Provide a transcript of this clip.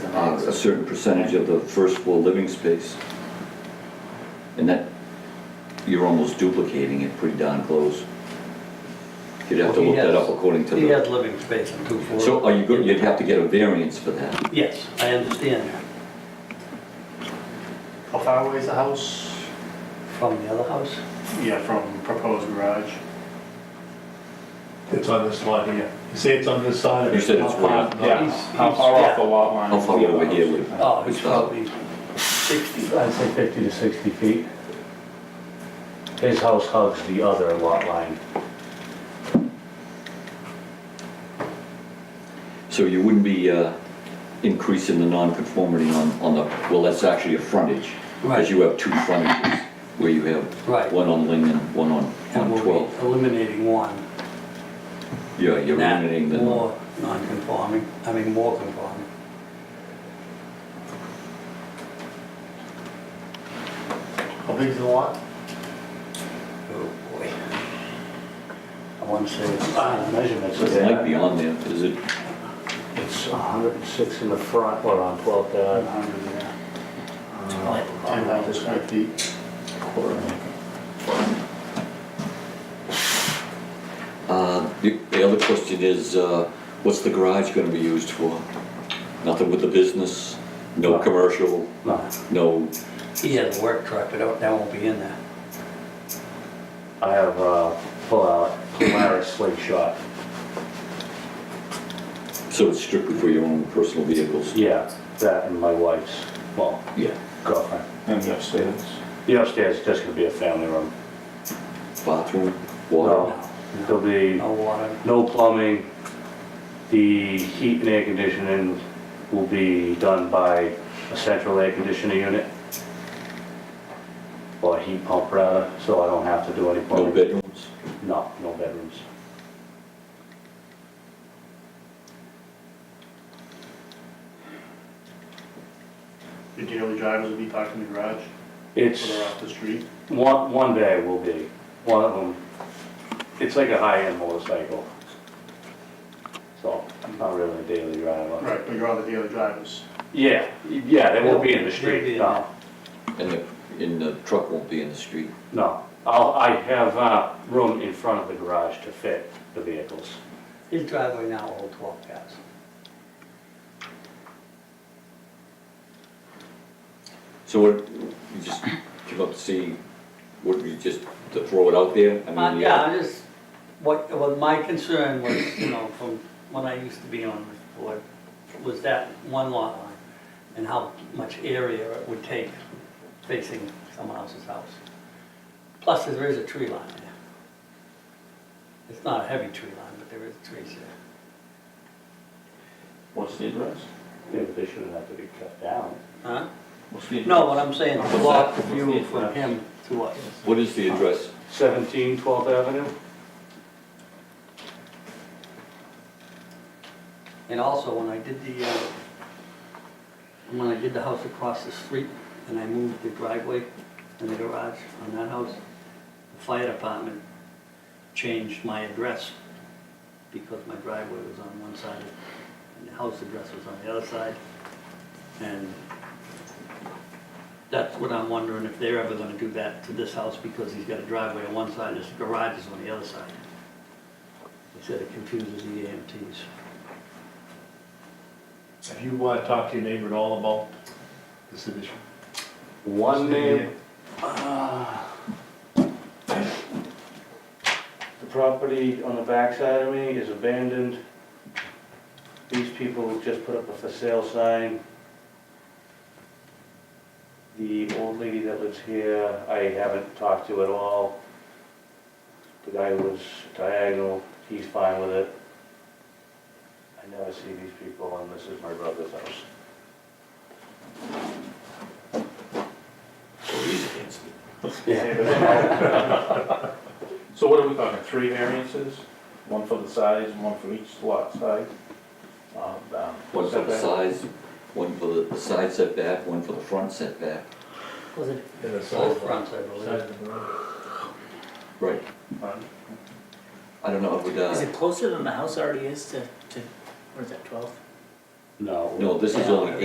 uh, a certain percentage of the first floor living space. And that, you're almost duplicating it pretty darn close. You'd have to Well, he look that has- up according to He has the, living space on two floors. so are you, go- you'd have to get a variance for that. Yes, I understand that, How far away is the house? from the other house. Yeah, from proposed garage. It's on this line here. You say it's on this side of it. You said it's way up. Yeah. Yeah, how far off the lot line? How far is the over here house? would? Oh, it's Uh, probably 60. I'd say 50 to 60 feet. His house hugs the other lot line. So you wouldn't be uh, increasing the non-conformity on, on the, well, that's actually a frontage. Right. Because you have two frontages, where you have Right. one on Ling and one on, And on we'll be 12. Eliminating one. Yeah, you're That eliminating the. More non-conforming, I mean, more conforming. How big is the lot? Oh, boy. I want to say, it's- ah, measurements are It might there. be on there, is it? It's 106 in the front, or on uh, 12th About Ave. 100 there. Uh, Ten thousand square feet. Uh, The the other question is, uh, what's the garage gonna be used for? Nothing with the business, no No. commercial, No, no, He has a work truck, but that that won't be in there. I have uh, a pull-out Polaris slingshot. so it's strictly for your own personal vehicles? Yeah, that and my wife's, well, Yeah. girlfriend. And the upstairs. The upstairs is just gonna be a family room. Bathroom, water? No, There'll be No water. no plumbing. The heat and air conditioning will be done by a central air conditioning unit. Or a heat pump rather, so I don't have to do any No plumbing. bedrooms? No, no bedrooms. Did you know the drivers would be parked in the garage It's. or they're off the street? One, one day will be, one of them, it's like a high-end motorcycle. So, not really a daily driver. Right, but you're on the daily drivers. Yeah, yeah, they won't be in They'll the be street, in no, And the, and the truck won't be in the street? no. I'll, I have, uh, room in front of the garage to fit the vehicles. His driveway now will hold 12 cars. So what, you just came up to see, what, you just, to throw it out there? I Uh, mean, Yeah, I just, what, what my concern was, you know, from when I used to be on this board, was that one lot line and how much area it would take facing someone else's house. Plus, there is a tree line there. It's not a heavy tree line, but there is trees there. What's the address? Yeah, but they shouldn't have to be cut down. Huh? What's the No, what I'm saying, the block What's that? view What's the from address? him to us. What is the address? Seventeen Twelfth Avenue? And also, when I did the, uh, when I did the house across the street, and I moved the driveway and the garage on that house, the fire department changed my address because my driveway was on one side and the house address was on the other side. And that's what I'm wondering, if they're ever gonna do that to this house, because he's got a driveway on one side, his garage is on the other side. He said it confuses the AMTs. Have you uh, talked to your neighbor at all about this addition? One name, The property on the backside of me is abandoned. These people just put up a for sale sign. The old lady that lives here, I haven't talked to at all. The guy who lives diagonal, he's fine with it. I never see these people and this is my brother's house. So what are we talking, three variances? One for the size, one for each lot size? Um, um, One for the setback? size, one for the side setback, one for the front setback. Was it In the Both side fronts, I of the- side believe. of the road? Right. Right. I don't know, I would, Is uh, it closer than the house already is to, to, where's that, 12? No. no, this is only